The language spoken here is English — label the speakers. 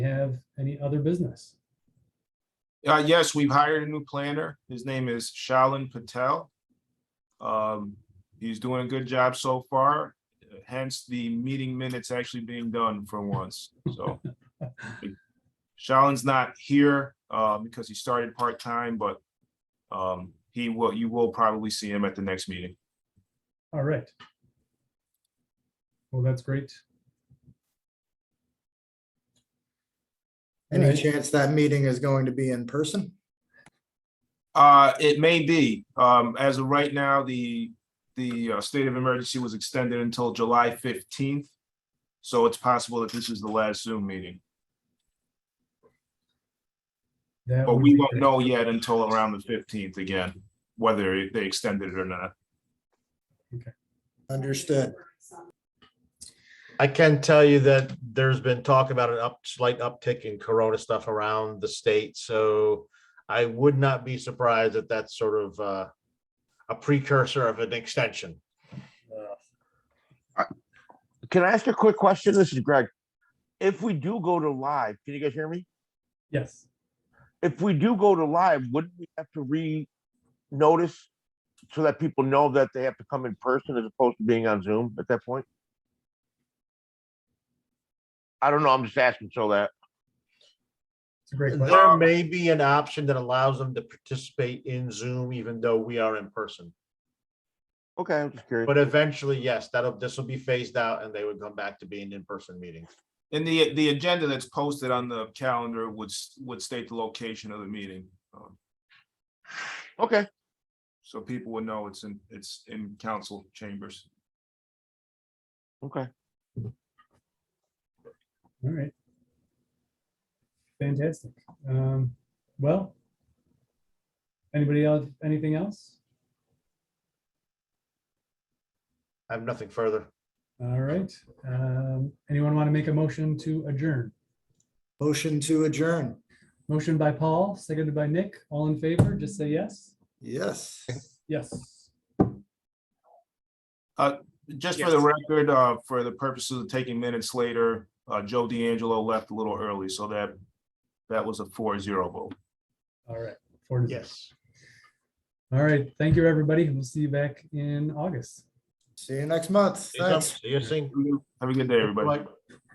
Speaker 1: have any other business?
Speaker 2: Uh, yes, we've hired a new planner. His name is Shalin Patel. Um, he's doing a good job so far, hence the meeting minutes actually being done for once, so. Shalin's not here, uh, because he started part-time, but, um, he will, you will probably see him at the next meeting.
Speaker 1: All right. Well, that's great.
Speaker 3: Any
Speaker 1: Right.
Speaker 3: chance that meeting is going to be in person?
Speaker 2: Uh, it may be, um, as of right now, the, the uh, state of emergency was extended until July fifteenth. So it's possible that this is the last Zoom meeting.
Speaker 1: That
Speaker 2: But
Speaker 1: would
Speaker 2: we
Speaker 1: be
Speaker 2: won't
Speaker 1: great.
Speaker 2: know yet until around the fifteenth again, whether they extended it or not.
Speaker 3: Understood.
Speaker 4: I can tell you that there's been talk about an up, slight uptick in Corona stuff around the state, so I would not be surprised that that's sort of uh, a precursor of an extension.
Speaker 5: Can I ask a quick question? This is Greg. If we do go to live, can you guys hear me?
Speaker 1: Yes,
Speaker 5: If we do go to live, wouldn't we have to re-notice so that people know that they have to come in person as opposed to being on Zoom at that point? I don't know. I'm just asking so that,
Speaker 1: it's a great question.
Speaker 4: There may be an option that allows them to participate in Zoom even though we are in person.
Speaker 5: okay, I'm just curious.
Speaker 4: But eventually, yes, that'll, this will be phased out and they would come back to being in-person meetings.
Speaker 2: And the, the agenda that's posted on the calendar would, s- would state the location of the meeting. um,
Speaker 5: Okay,
Speaker 2: So people would know it's in, it's in council chambers.
Speaker 5: okay.
Speaker 1: All right. Fantastic. Um, well. Anybody else, anything else?
Speaker 4: I have nothing further.
Speaker 1: All right. Um, anyone want to make a motion to adjourn?
Speaker 3: Motion to adjourn.
Speaker 1: Motion by Paul, seconded by Nick. All in favor, just say yes.
Speaker 3: Yes.
Speaker 1: Yes.
Speaker 2: Just for the record, uh, for the purposes of taking minutes later, uh, Joe D'Angelo left a little early, so that, that was a four zero vote.
Speaker 1: All right. Four to zero.
Speaker 4: Yes.
Speaker 1: All right. Thank you, everybody. and We'll see you back in August.
Speaker 3: See you next month. Thanks.
Speaker 4: See you soon.
Speaker 2: Have a good day, everybody.
Speaker 4: Bye.